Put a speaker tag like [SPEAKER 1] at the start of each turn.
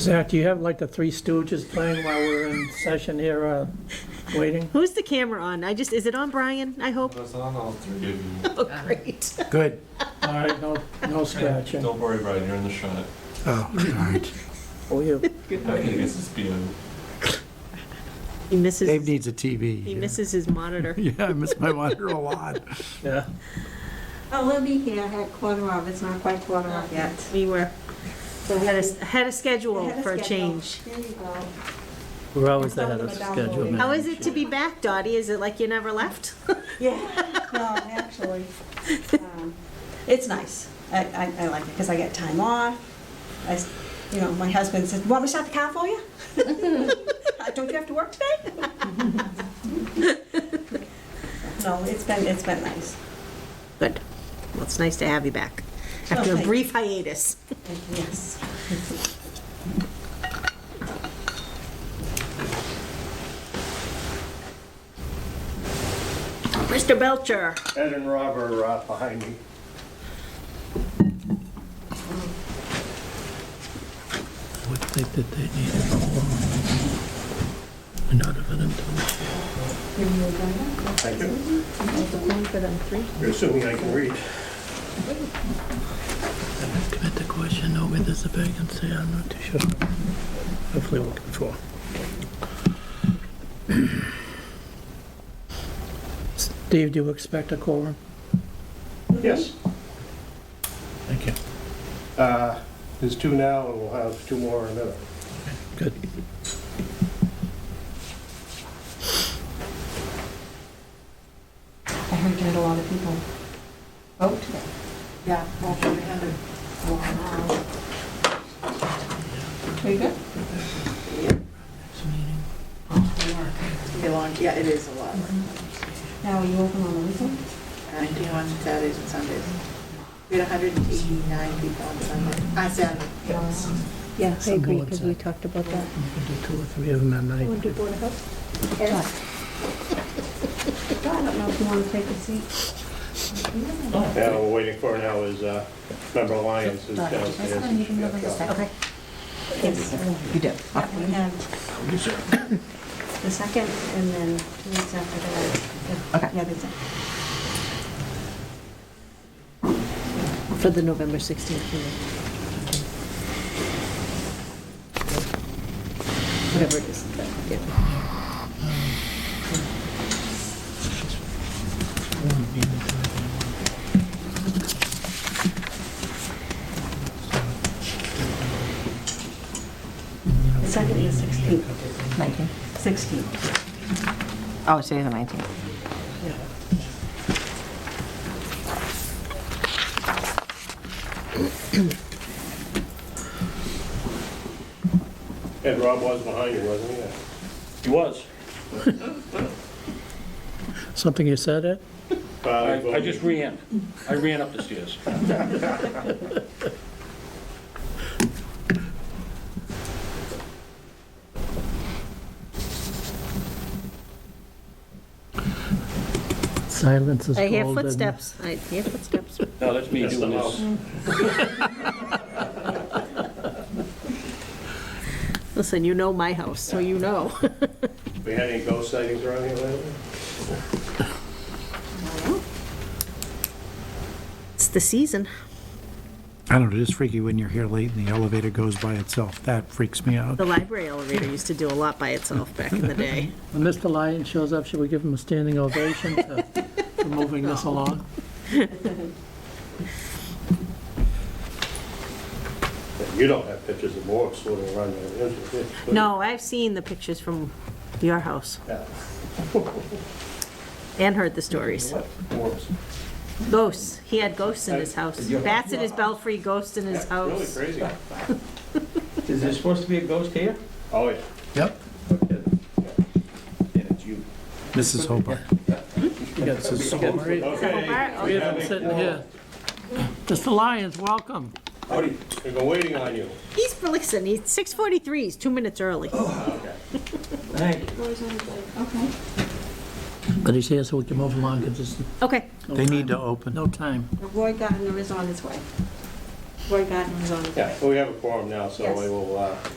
[SPEAKER 1] Zach, do you have like the Three Stooges playing while we're in session here, uh, waiting?
[SPEAKER 2] Who's the camera on? I just, is it on Brian, I hope?
[SPEAKER 3] That's on all three.
[SPEAKER 2] Oh, great.
[SPEAKER 4] Good.
[SPEAKER 1] All right, no, no scratching.
[SPEAKER 3] Don't worry, Brian, you're in the shot.
[SPEAKER 4] Oh, all right.
[SPEAKER 1] Oh, you,
[SPEAKER 3] I think this is being,
[SPEAKER 2] He misses,
[SPEAKER 4] Dave
[SPEAKER 2] his-
[SPEAKER 4] needs a TV.
[SPEAKER 2] he misses his monitor.
[SPEAKER 4] Yeah, I miss my monitor a lot.
[SPEAKER 1] yeah.
[SPEAKER 5] Oh, we'll be here at quarter of, it's not quite quarter of yet.
[SPEAKER 2] We were,
[SPEAKER 5] So
[SPEAKER 2] had
[SPEAKER 5] we'll
[SPEAKER 2] a, had a schedule
[SPEAKER 5] be- ahead of
[SPEAKER 2] for a
[SPEAKER 5] schedule.
[SPEAKER 2] change.
[SPEAKER 5] There you go.
[SPEAKER 6] We're always
[SPEAKER 5] Some
[SPEAKER 6] ahead
[SPEAKER 5] of
[SPEAKER 6] of
[SPEAKER 5] them are downloading.
[SPEAKER 6] schedule, man.
[SPEAKER 2] How is it to be back, Dottie? Is it like you never left?
[SPEAKER 5] Yeah, no, actually, um, it's nice. I, I, I like it because I get time off. I, s- you know, my husband says, want me to start the car for you? Uh, Don't you have to work today? No, it's been, it's been nice.
[SPEAKER 2] Good. Well, it's nice to have you back after a
[SPEAKER 5] thank you.
[SPEAKER 2] brief hiatus.
[SPEAKER 5] Yes.
[SPEAKER 2] Mr. Belcher,
[SPEAKER 7] Ed and Rob are uh, behind me.
[SPEAKER 6] What they did, they needed a In order for them to,
[SPEAKER 7] Thank you. Assuming I can read.
[SPEAKER 6] commit the question, know whether there's a vacancy, I'm not too sure. Hopefully we'll get four.
[SPEAKER 1] Steve, do you expect a quorum?
[SPEAKER 7] Yes,
[SPEAKER 6] Thank you.
[SPEAKER 7] uh, there's two now, and we'll have two more in a minute.
[SPEAKER 6] Good.
[SPEAKER 5] I heard you had a lot of people vote today. Yeah, over a hundred. Wow. Are you good?
[SPEAKER 8] belong, yeah, it is a lot.
[SPEAKER 5] Now, are you open on the weekend?
[SPEAKER 8] Ninety on Saturdays and Sundays. We had hundred and eighty-nine people on Sunday, on Saturday.
[SPEAKER 9] Yeah, I
[SPEAKER 6] Some
[SPEAKER 9] agree,
[SPEAKER 6] boards
[SPEAKER 9] because
[SPEAKER 6] are-
[SPEAKER 9] we talked about that.
[SPEAKER 6] We can do two or three of them at night.
[SPEAKER 9] do Board of Health?
[SPEAKER 5] I don't know if you want to take a seat.
[SPEAKER 7] Yeah, we're waiting for now is uh, member Lyons is downstairs. She got caught.
[SPEAKER 2] Okay.
[SPEAKER 5] Yes.
[SPEAKER 9] You do.
[SPEAKER 5] Yeah, we have the second, and then two weeks after that.
[SPEAKER 9] Okay.
[SPEAKER 5] Yeah, that's it.
[SPEAKER 9] For the November 16th meeting. Whatever it is. that- yeah.
[SPEAKER 5] The second is 16. 16.
[SPEAKER 9] Oh, today's the 19th.
[SPEAKER 7] Ed Rob was behind you, wasn't he?
[SPEAKER 3] he was.
[SPEAKER 1] Something you said, Ed?
[SPEAKER 7] Uh,
[SPEAKER 3] I I
[SPEAKER 7] voted.
[SPEAKER 3] just ran. I ran up the stairs.
[SPEAKER 6] Silence is
[SPEAKER 2] I
[SPEAKER 6] golden.
[SPEAKER 2] hear
[SPEAKER 1] um,
[SPEAKER 2] footsteps. I hear footsteps.
[SPEAKER 3] No, that's me
[SPEAKER 7] That's the
[SPEAKER 3] doing this.
[SPEAKER 2] Listen, you know my house, so you know.
[SPEAKER 7] We had any ghost sightings around here lately?
[SPEAKER 2] It's the season.
[SPEAKER 4] I don't know, it is freaky when you're here late and the elevator goes by itself. That freaks me out.
[SPEAKER 2] The library elevator used to do a lot by itself back in the day.
[SPEAKER 1] When Mr. Lyon shows up, should we give him a standing ovation to- for moving this along?
[SPEAKER 7] You don't have pictures of Morris swimming around there. is it?
[SPEAKER 2] No, I've seen the pictures from your house
[SPEAKER 7] Yeah.
[SPEAKER 2] and heard the stories.
[SPEAKER 7] What? Morris.
[SPEAKER 2] Ghosts. He had ghosts in his house. Bats in his belfry, ghosts in his
[SPEAKER 7] Really
[SPEAKER 2] house.
[SPEAKER 7] crazy.
[SPEAKER 10] Is there supposed to be a ghost here?
[SPEAKER 7] Oh, yeah.
[SPEAKER 4] Yep.
[SPEAKER 10] Yeah, it's you.
[SPEAKER 4] Mrs. Hobart.
[SPEAKER 1] Yes, it's so great.
[SPEAKER 7] Okay,
[SPEAKER 1] We have been sitting here. Mr. Lyons, welcome.
[SPEAKER 7] Howdy. We've been waiting on you.
[SPEAKER 2] He's, listen, he's 6:43, he's two minutes early.
[SPEAKER 10] Thank you.
[SPEAKER 1] But he's here so we can move along because there's
[SPEAKER 2] Okay.
[SPEAKER 4] They need to open.
[SPEAKER 1] no time.
[SPEAKER 5] Roy Gardner is on his way. Roy Gardner is on his way.
[SPEAKER 7] Yeah, well, we have a forum now, so
[SPEAKER 5] Yes.
[SPEAKER 7] we will uh,